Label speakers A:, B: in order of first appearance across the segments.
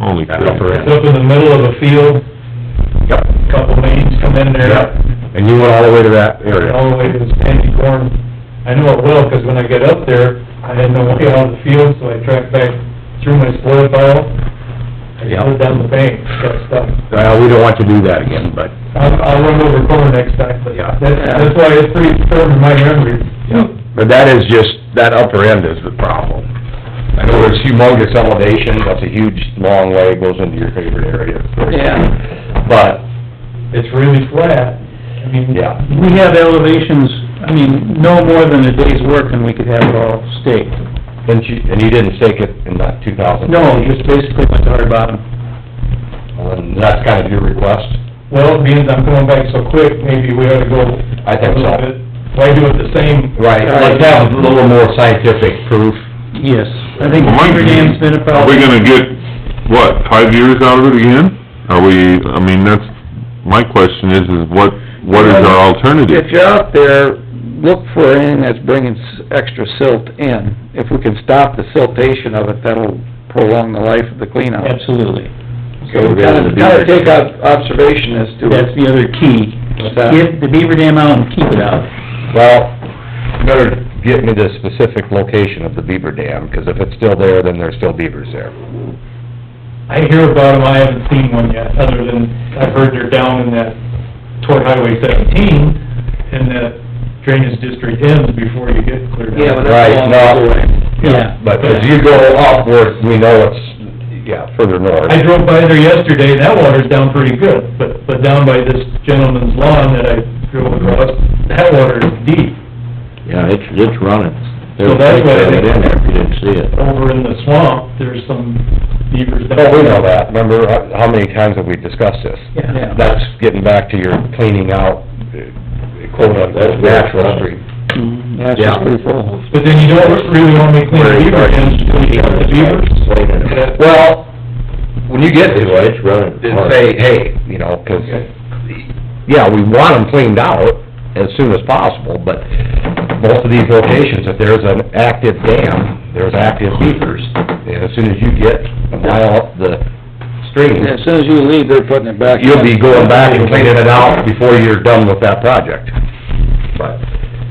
A: only
B: Separate.
A: correct.
C: Look in the middle of a field,
A: Yep,
C: couple lanes come in
A: yep,
C: there,
A: and you went all the way to that area.
C: all the way to the sandy corn. I know it well, 'cause when I got up there, I had no way out of the field, so I tracked back through my spoil pile. I
A: Yep.
C: slid down the bank, got stuck.
A: Well, we don't want to do that again, but,
C: I'll, I'll run over corn next time, but
A: Yeah.
C: that's, that's why it's pretty firm in my memory.
A: but that is just, that upper end is the problem. I know there's humongous elevation, that's a huge, long way, goes into your favorite area. Yeah. But,
C: It's really flat. I mean,
A: yeah,
D: We have elevations, I mean, no more than a day's work and we could have it all staked.
A: and you, and you didn't stake it in that two thousand?
D: No, just basically went to hard bottom.
A: And that's kind of your request?
C: Well, being I'm coming back so quick, maybe we ought to go.
A: I think
C: a little
A: so.
C: bit. Why do it the same?
A: Right, let's have a little more scientific proof.
D: Yes, I think Beaver Dam's been a
B: Are we
D: problem.
B: gonna get, what, five years out of it again? Are we, I mean, that's, my question is, is what, what is our alternative?
E: If you're out there, look for anything that's bringing s- extra silt in. If we can stop the siltation of it, that'll prolong the life of the cleanout.
D: Absolutely.
A: So we're gonna do
E: Kind of, kind of
A: this.
E: take ob- observation as to
D: That's the other key.
E: What's that?
D: Get the Beaver Dam out and keep it out.
A: Well, you better get me the specific location of the beaver dam, 'cause if it's still there, then there's still beavers there.
C: I hear about them, I haven't seen one yet, other than I've heard they're down in that toward Highway seventeen and that drainage district ends before you get cleared out.
E: Yeah, but that's
A: Right,
E: along
A: no,
D: Yeah.
A: but as you go upward, we know it's, yeah, further north.
C: I drove by there yesterday, and that water's down pretty good, but, but down by this gentleman's lawn that I drove across, that water is deep.
F: Yeah, it's, it's running.
C: So that's why I
F: They'll take
C: think-
F: that in there if you didn't see it. Oh,
C: Over in the swamp, there's some beavers down.
A: Well, Oh, we know that, remember, how- how many times have we discussed this?
D: Yeah.
A: That's getting back to your cleaning out, uh, quote unquote, natural stream.
E: Yeah, it's just pretty full.
C: But then you don't really want me cleaning beaver dams, so you got the beavers.
A: Well, when you get to it,
F: It's running.
A: then say, hey, you know, 'cause, yeah, we want them cleaned out as soon as possible, but most of these locations, if there's an active dam, there's active beavers, and as soon as you get a mile up the stream,
E: As soon as you leave, they're putting it back.
A: you'll be going back and cleaning it out before you're done with that project. But,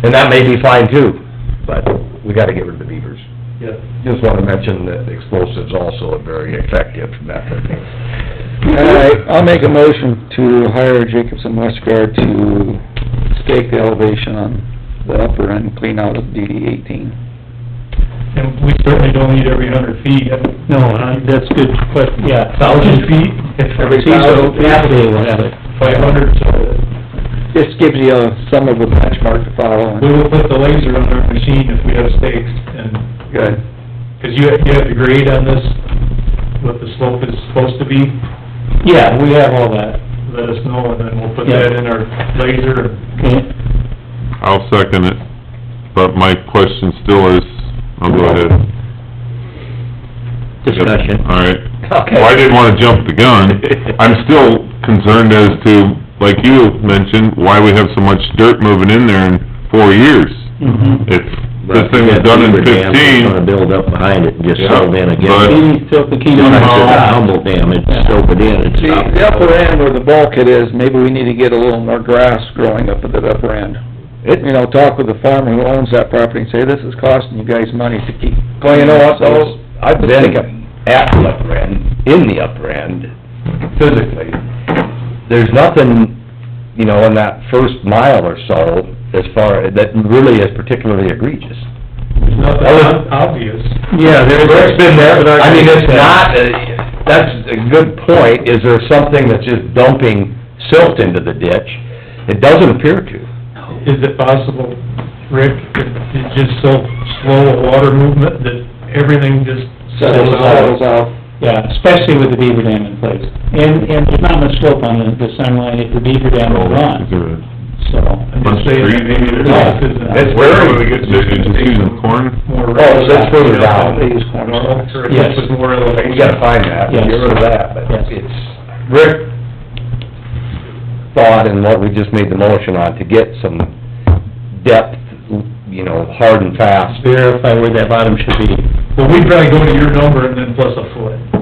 A: and that may be fine too, but we gotta get rid of the beavers.
C: Yeah.
A: Just wanna mention that explosives also a very effective method.
E: All right, I'll make a motion to hire Jacobson Westgard to stake the elevation on the upper end clean out of DD eighteen.
C: And we certainly don't need every hundred feet.
D: No, uh, that's good question, yeah.
C: Thousand feet?
D: Every thousand, half day we'll have it.
C: Five hundred, so
E: Just gives you a- some of a benchmark to follow.
C: we will put the laser on our machine if we have stakes and
E: Good.
C: Because you have, you have the grade on this, what the slope is supposed to be,
D: Yeah, we have all that.
C: let us know, and then we'll put
D: Yeah.
C: that in our laser.
D: Okay.
B: I'll second it, but my question still is, I'll go ahead.
F: Discussion.
B: All right.
A: Okay.
B: Well, I didn't wanna jump the gun. I'm still concerned as to, like you mentioned, why we have so much dirt moving in there in four years.
D: Mm-hmm.
B: If this thing was done in
F: Beaver Dam was
B: fifteen,
F: gonna build up behind it and just settle in
B: Yeah,
F: again.
B: but-
D: Any silt that came
F: Just
D: out.
F: like the Humble Dam, it silted in and
E: See,
F: stopped.
E: the upper end where the bulkhead is, maybe we need to get a little more grass growing up at that upper end. You know, talk with the farmer who owns that property and say, this is costing you guys money to keep.
A: Well, you know what, though, I've been at the upper end, in the upper end, physically. There's nothing, you know, in that first mile or so, as far, that really is particularly egregious.
C: There's nothing
A: Well-
C: ob- obvious.
D: Yeah, there's...
A: Rick's been there, I mean, it's not, a- that's a good point, is there something that's just dumping silt into the ditch? It doesn't appear to.
C: Is it possible, Rick, if it's just so slow a water movement that everything just
E: Settles out,
A: uh,
E: settles out.
D: Yeah, especially with the beaver dam in place. And, and there's not much slope on the, the sunlight if the beaver dam
B: oh,
D: will
B: is
D: run,
B: there a-
D: so.
C: I'm just saying, that maybe there's
D: No.
C: this
A: It's
C: is
A: where
B: Did you see the corn?
C: more...
A: Oh, that's further down.
E: They use corn
C: Normal, or if
D: Yes.
C: this was more
A: You
C: elevation.
A: gotta find that, get rid of that, but
D: Yes.
A: it's, Rick thought and what we just made the motion on, to get some depth, you know, hard and fast.
D: Verify where that bottom should be.
C: Well, we'd probably go to your number and then plus a foot.